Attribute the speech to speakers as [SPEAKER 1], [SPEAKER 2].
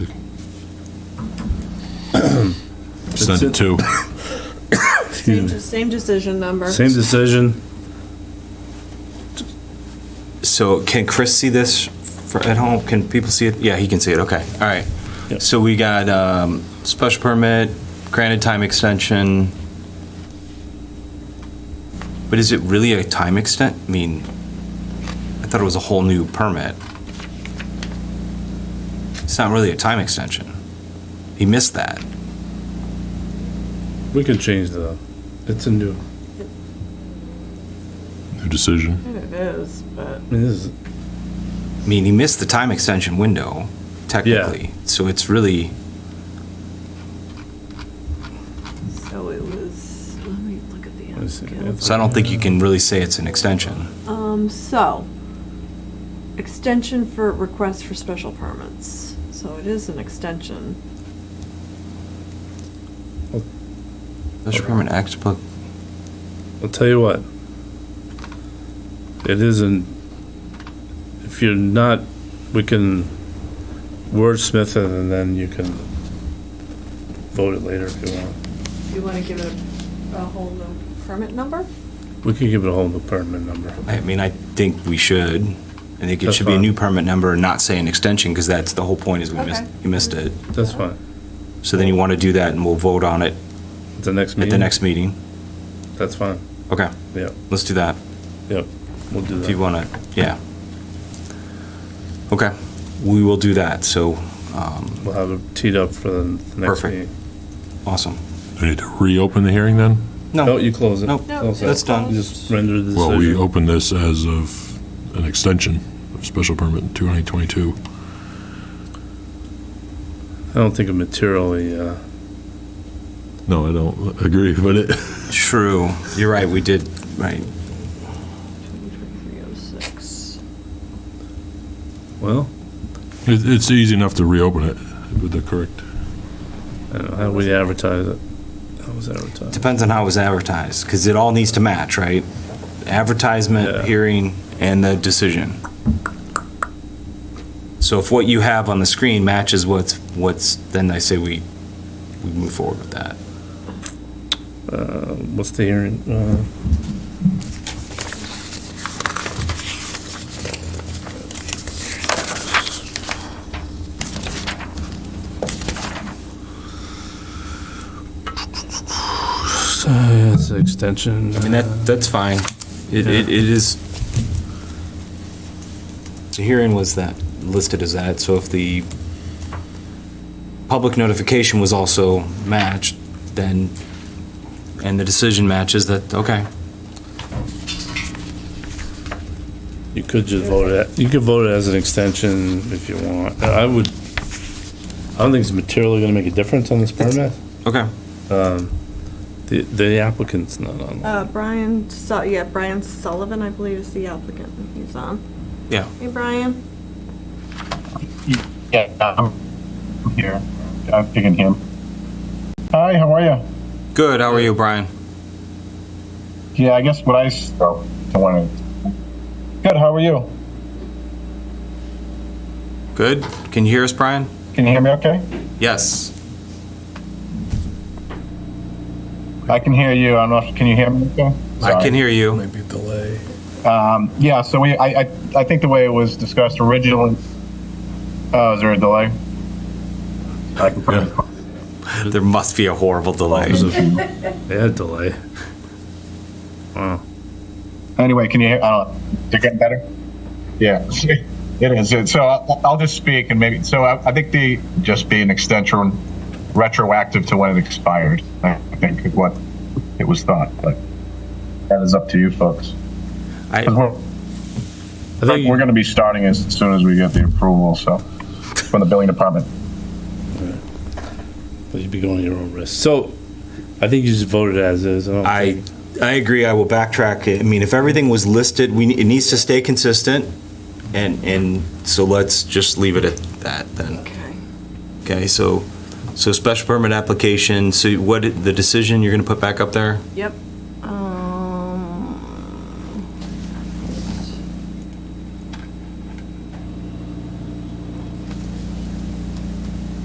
[SPEAKER 1] Send it to.
[SPEAKER 2] Same,
[SPEAKER 3] Excuse me.
[SPEAKER 2] de- same decision number.
[SPEAKER 3] Same decision.
[SPEAKER 4] So can Chris see this for, at home? Can people see it? Yeah, he can see it, okay, all right.
[SPEAKER 3] Yep.
[SPEAKER 4] So we got, um, special permit, granted time extension. But is it really a time extent? I mean, I thought it was a whole new permit. It's not really a time extension. He missed that.
[SPEAKER 3] We can change the, it's a new,
[SPEAKER 1] New decision.
[SPEAKER 2] It is, but
[SPEAKER 3] I mean, this is,
[SPEAKER 4] I mean, he missed the time extension window technically. So it's really,
[SPEAKER 2] so it was. Let me look at the
[SPEAKER 3] Let's see,
[SPEAKER 2] application.
[SPEAKER 4] so I don't think you can really say it's an extension.
[SPEAKER 2] Um, so extension for request for special permits. So it is an extension.
[SPEAKER 4] Special permit act,
[SPEAKER 3] I'll tell you what. It isn't, if you're not, we can wordsmith it and then you can vote it later if you want.
[SPEAKER 2] You want to give it a, a whole new permit number?
[SPEAKER 3] We could give it a whole new permit number.
[SPEAKER 4] I mean, I think we should. I think it
[SPEAKER 3] That's
[SPEAKER 4] should be a
[SPEAKER 3] fine.
[SPEAKER 4] new permit number and not say an extension, because that's the whole point is we missed,
[SPEAKER 2] Okay.
[SPEAKER 4] you missed it.
[SPEAKER 3] That's fine.
[SPEAKER 4] So then you want to do that and we'll vote on it
[SPEAKER 3] At the next
[SPEAKER 4] at
[SPEAKER 3] meeting.
[SPEAKER 4] the next meeting.
[SPEAKER 3] That's fine.
[SPEAKER 4] Okay,
[SPEAKER 3] Yeah,
[SPEAKER 4] let's do that,
[SPEAKER 3] yeah. We'll do
[SPEAKER 4] if you
[SPEAKER 3] that.
[SPEAKER 4] want to, yeah. Okay, we will do that, so, um,
[SPEAKER 3] We'll have it teed up for the the next
[SPEAKER 4] Perfect.
[SPEAKER 3] meeting.
[SPEAKER 4] awesome.
[SPEAKER 1] We need to reopen the hearing then?
[SPEAKER 3] No,
[SPEAKER 4] No,
[SPEAKER 3] you close it.
[SPEAKER 4] No,
[SPEAKER 2] No,
[SPEAKER 3] Close it.
[SPEAKER 4] that's done.
[SPEAKER 3] You Just render the
[SPEAKER 1] Well, we
[SPEAKER 3] decision.
[SPEAKER 1] open this as of an extension of special permit 2022.
[SPEAKER 3] I don't think it materially, uh,
[SPEAKER 1] No, I don't agree, but it,
[SPEAKER 4] true, you're right, we did, right.
[SPEAKER 2] 2306.
[SPEAKER 3] well,
[SPEAKER 1] it- it's easy enough to reopen it with the correct.
[SPEAKER 3] I don't know, Uh, how do we advertise it? How was advertised?
[SPEAKER 4] Depends on how it was advertised, because it all needs to match, right?
[SPEAKER 3] Yeah.
[SPEAKER 4] Advertisement, hearing, and the decision. So if what you have on the screen matches what's, what's, then I say we, we move forward with that.
[SPEAKER 3] Uh, what's the hearing? Uh, so, yeah, It's an extension. uh,
[SPEAKER 4] I mean, that, that's fine. It, it it is. The hearing was that, listed as that, so if the public notification was also matched, then, and the decision matches, that, okay.
[SPEAKER 3] You could just vote it, you could vote it as an extension if you want. Uh, I would, I don't think it's materially gonna make a difference on this permit.
[SPEAKER 4] Okay.
[SPEAKER 3] The, the applicant's not on.
[SPEAKER 2] Uh, Brian, Su- yeah, Brian Sullivan, I believe, is the applicant. He's on.
[SPEAKER 4] Yeah.
[SPEAKER 2] Hey, Brian.
[SPEAKER 5] Yeah, I'm I'm here. I'm picking him. Hi, how are you?
[SPEAKER 4] Good. How are you, Brian?
[SPEAKER 5] Yeah, I guess what I s- oh, I wanted. Good. How are you?
[SPEAKER 4] Good. Can you hear us, Brian?
[SPEAKER 5] Can you hear me? Okay.
[SPEAKER 4] Yes.
[SPEAKER 5] I can hear you. I don't know. If, can you hear me? Okay.
[SPEAKER 4] I
[SPEAKER 5] Sorry.
[SPEAKER 4] can hear you.
[SPEAKER 6] Maybe delay.
[SPEAKER 5] Yeah. So we, I, I, I think the way it was discussed originally. Oh, is there a delay? I can put it.
[SPEAKER 4] There must be a horrible delay.
[SPEAKER 3] They had delay.
[SPEAKER 5] Anyway, can you hear? I don't. Is it getting better? Yeah, it is. So uh, I'll, I'll just speak and maybe. So I, I think the just be an extension, retroactive to when it expired. I think is what it was thought, but that is up to you folks.
[SPEAKER 4] I,
[SPEAKER 5] 'Cause We're,
[SPEAKER 3] I think,
[SPEAKER 5] we're going to be starting as soon as we get the approval. So from the billing department.
[SPEAKER 3] you- you'd be going at your own risk. So, I think you just voted as is. I don't think-
[SPEAKER 4] I, I agree. I will backtrack. it. I mean, if everything was listed, we, it needs to stay consistent. And, and so let's just leave it at that then.
[SPEAKER 2] Okay.
[SPEAKER 4] Okay, so, so special permit application, so what, the decision you're gonna put back up there?
[SPEAKER 2] Yep. Um,